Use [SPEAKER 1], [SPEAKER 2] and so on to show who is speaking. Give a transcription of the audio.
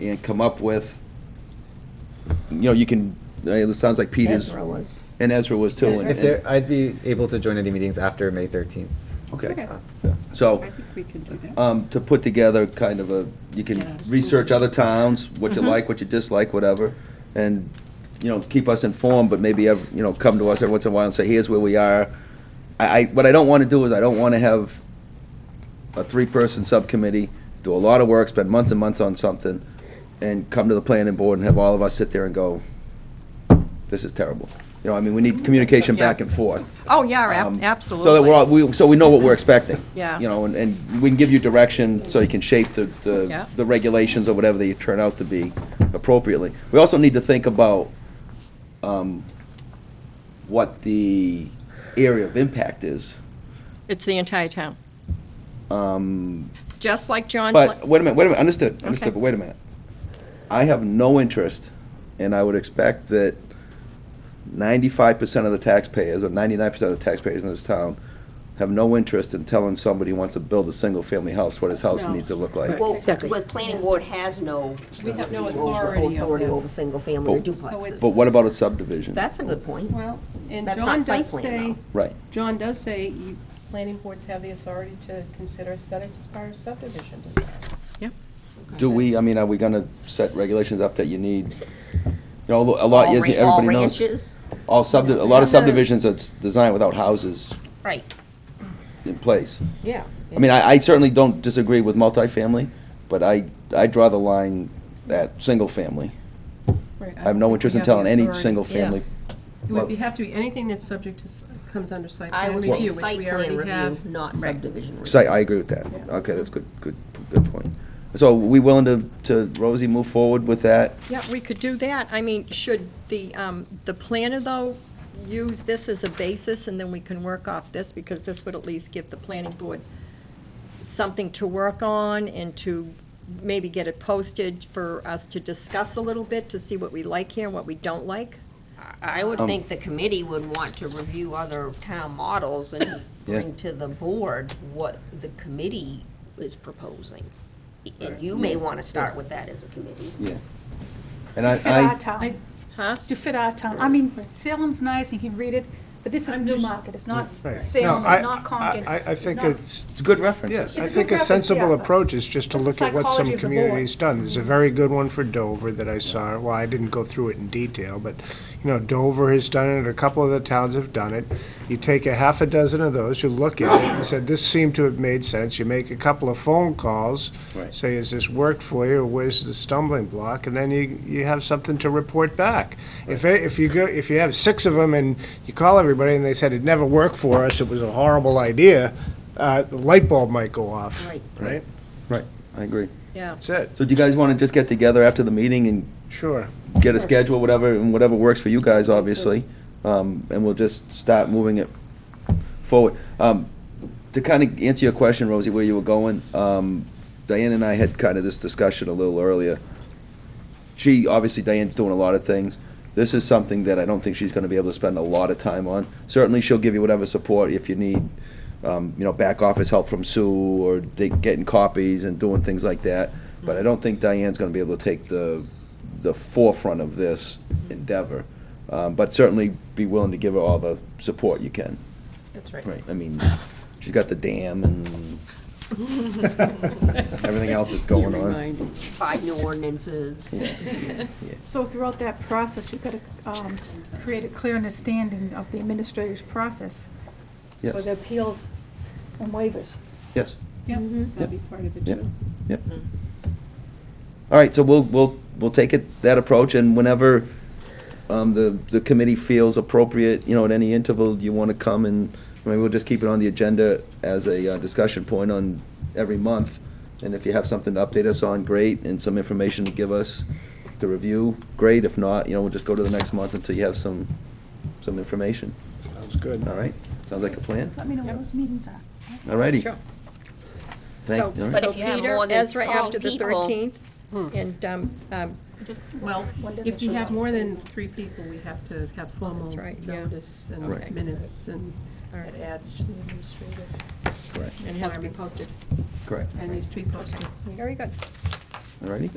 [SPEAKER 1] and come up with, you know, you can, it sounds like Pete is.
[SPEAKER 2] Ezra was.
[SPEAKER 1] And Ezra was too. and-
[SPEAKER 2] Ezra.
[SPEAKER 3] If there, I'd be able to join any meetings after May thirteenth,
[SPEAKER 1] Okay.
[SPEAKER 2] Okay.
[SPEAKER 3] uh, so.
[SPEAKER 1] So,
[SPEAKER 2] I think we can do that.
[SPEAKER 1] um, to put together kind of a, you
[SPEAKER 2] Yeah.
[SPEAKER 1] can research other towns, what you like, what you dislike, whatever, and, you know, keep us informed, but maybe, ev- you know, come to us every once in a while and say, here's where we are. I, I, what I don't want to do is I don't want to have a three-person subcommittee, do a lot of work, spend months and months on something, and come to the planning board and have all of us sit there and go, this is terrible. You know, I mean, we need communication back
[SPEAKER 4] Yeah.
[SPEAKER 1] and forth.
[SPEAKER 4] Oh, yeah,
[SPEAKER 1] Um,
[SPEAKER 4] ab-
[SPEAKER 1] So that we're all,
[SPEAKER 4] absolutely.
[SPEAKER 1] we, so we know what we're expecting.
[SPEAKER 4] Yeah.
[SPEAKER 1] You know, and, and we can give you direction so you can shape the, the,
[SPEAKER 4] Yeah.
[SPEAKER 1] the regulations or whatever they turn out to be appropriately. We also need to think about, um, what the area of impact is.
[SPEAKER 4] It's the entire town.
[SPEAKER 1] Um,
[SPEAKER 4] Just like John's.
[SPEAKER 1] but,
[SPEAKER 4] la-
[SPEAKER 1] wait a minute, wait a minute, understood, understood,
[SPEAKER 4] Okay.
[SPEAKER 1] but wait a minute. I have no interest, and I would expect that ninety-five percent of the taxpayers, or ninety-nine percent of the taxpayers in this town, have no interest in telling somebody who wants to build a single-family house what his house
[SPEAKER 2] No.
[SPEAKER 1] needs to look like.
[SPEAKER 5] Well,
[SPEAKER 2] Exactly.
[SPEAKER 5] the planning board has no.
[SPEAKER 2] We have
[SPEAKER 5] over-
[SPEAKER 2] no authority over
[SPEAKER 5] Authority
[SPEAKER 2] that.
[SPEAKER 5] over single-family or
[SPEAKER 1] But-
[SPEAKER 2] So it's-
[SPEAKER 5] duplexes.
[SPEAKER 1] Oh. But what about a subdivision?
[SPEAKER 5] That's a good point.
[SPEAKER 2] Well, and
[SPEAKER 5] That's
[SPEAKER 2] John
[SPEAKER 5] not site
[SPEAKER 2] does
[SPEAKER 5] plan,
[SPEAKER 2] say,
[SPEAKER 1] Right,
[SPEAKER 2] John does say, you, planning boards have the authority to consider aesthetics as part of subdivision design.
[SPEAKER 4] Yep.
[SPEAKER 1] do we, I mean, are we gonna set regulations up that you need, you know, a lot,
[SPEAKER 5] All
[SPEAKER 1] yes,
[SPEAKER 5] ra-
[SPEAKER 1] everybody
[SPEAKER 5] All
[SPEAKER 1] knows.
[SPEAKER 5] ranches,
[SPEAKER 1] All subdi, a lot of subdivisions that's designed without houses
[SPEAKER 5] right.
[SPEAKER 1] in place.
[SPEAKER 2] Yeah.
[SPEAKER 1] I mean, I, I certainly don't disagree with multifamily, but I, I draw the line at single family. I have no interest in telling any single family.
[SPEAKER 2] It would be, have to be anything that's subject to, s- comes under site
[SPEAKER 5] I
[SPEAKER 2] plan
[SPEAKER 5] would
[SPEAKER 2] review,
[SPEAKER 5] say
[SPEAKER 2] which
[SPEAKER 5] site
[SPEAKER 2] we
[SPEAKER 5] plan
[SPEAKER 2] already
[SPEAKER 5] review,
[SPEAKER 2] have.
[SPEAKER 5] not
[SPEAKER 2] Right.
[SPEAKER 5] subdivision review.
[SPEAKER 1] So I, I agree with that.
[SPEAKER 2] Yeah.
[SPEAKER 1] Okay, that's good, good, good point. So we willing to, to, Rosie, move forward with that?
[SPEAKER 4] Yeah, we could do that. I mean, should the, um, the planner, though, use this as a basis, and then we can work off this, because this would at least give the planning board something to work on and to maybe get it posted for us to discuss a little bit, to see what we like here and what we don't like?
[SPEAKER 5] I would
[SPEAKER 1] Um,
[SPEAKER 5] think the committee would want to review other town models and
[SPEAKER 1] Yeah.
[SPEAKER 5] bring to the board what the committee is proposing. And you may want to start with that as a committee.
[SPEAKER 1] Yeah. And I,
[SPEAKER 6] fit our
[SPEAKER 1] I,
[SPEAKER 2] I-
[SPEAKER 6] town,
[SPEAKER 4] Huh?
[SPEAKER 6] to fit our town. I mean, Salem's nice and you can read it, but this is
[SPEAKER 2] I'm
[SPEAKER 6] Newmarket, it's not
[SPEAKER 7] Right.
[SPEAKER 6] Salem,
[SPEAKER 7] No, I-
[SPEAKER 6] it's not Concord.
[SPEAKER 7] I, I think
[SPEAKER 6] not-
[SPEAKER 7] it's,
[SPEAKER 1] it's a good reference.
[SPEAKER 7] yes,
[SPEAKER 6] It's a
[SPEAKER 7] I think
[SPEAKER 6] good
[SPEAKER 7] a
[SPEAKER 6] reference,
[SPEAKER 7] sensible
[SPEAKER 6] yeah,
[SPEAKER 7] approach is just to
[SPEAKER 6] but
[SPEAKER 7] look at what
[SPEAKER 6] psychology
[SPEAKER 7] some
[SPEAKER 6] of the board.
[SPEAKER 7] communities done. There's a very good one for Dover that I saw, well, I didn't go through it in detail, but, you know, Dover has done it, a couple of the towns have done it. You take a half a dozen of those, you look at it, and said, this seemed to have made sense, you make a couple of phone calls,
[SPEAKER 1] Right.
[SPEAKER 7] say, has this worked for you, or where's the stumbling block, and then you, you have something to report back. If, it- if you go, if you have six of them and you call everybody and they said, it never worked for us, it was a horrible idea, uh, the light bulb might go off,
[SPEAKER 5] Right.
[SPEAKER 7] right?
[SPEAKER 1] Right, I agree.
[SPEAKER 4] Yeah.
[SPEAKER 7] That's it,
[SPEAKER 1] So do you guys want to just get together after the meeting and
[SPEAKER 7] sure.
[SPEAKER 1] get a schedule, whatever, and whatever works for you guys, obviously. Um, and we'll just start moving it forward. Um, to kind of answer your question, Rosie, where you were going, um, Diane and I had kind of this discussion a little earlier. She, obviously Diane's doing a lot of things. This is something that I don't think she's gonna be able to spend a lot of time on. Certainly, she'll give you whatever support if you need, um, you know, back office help from Sue or they, getting copies and doing things like that. But I don't think Diane's gonna be able to take the, the forefront of this endeavor. Um, but certainly be willing to give her all the support you can.
[SPEAKER 2] That's right.
[SPEAKER 1] I mean, she's got the dam and everything else that's going on.
[SPEAKER 5] Five new ordinances.
[SPEAKER 6] So throughout that process, you've got to create a clear understanding of the administrative process for
[SPEAKER 1] Yes,
[SPEAKER 6] the appeals and waivers.
[SPEAKER 1] yes,
[SPEAKER 2] Yep, that'd be part of it
[SPEAKER 1] yep,
[SPEAKER 2] too.
[SPEAKER 1] yep. All right, so we'll, we'll, we'll take it, that approach, and whenever, um, the, the committee feels appropriate, you know, at any interval, you want to come and, maybe we'll just keep it on the agenda as a uh, discussion point on every month. And if you have something to update us on, great, and some information to give us to review, great. If not, you know, we'll just go to the next month until you have some, some information.
[SPEAKER 7] Sounds good.
[SPEAKER 1] All right, sounds like a plan.
[SPEAKER 6] Let me know when those meetings are.
[SPEAKER 1] All righty.
[SPEAKER 4] Sure.
[SPEAKER 1] Thank- all
[SPEAKER 4] So,
[SPEAKER 1] right.
[SPEAKER 5] But
[SPEAKER 4] so
[SPEAKER 5] if you have
[SPEAKER 4] Peter,
[SPEAKER 5] more than
[SPEAKER 4] Ezra
[SPEAKER 5] three
[SPEAKER 4] after the
[SPEAKER 5] people-
[SPEAKER 4] thirteenth, and, um, um,
[SPEAKER 2] Well,
[SPEAKER 6] When does
[SPEAKER 2] if
[SPEAKER 6] it
[SPEAKER 2] we
[SPEAKER 6] show
[SPEAKER 2] have
[SPEAKER 6] up?
[SPEAKER 2] more than three people, we have to have formal
[SPEAKER 4] That's right, yeah.
[SPEAKER 2] notice
[SPEAKER 1] Right.
[SPEAKER 2] and minutes, and
[SPEAKER 4] All right.
[SPEAKER 2] it adds to the administrative.
[SPEAKER 1] Correct.
[SPEAKER 4] and it has to be posted.
[SPEAKER 1] Correct.
[SPEAKER 2] And these three posted.
[SPEAKER 4] Very good.
[SPEAKER 1] All righty.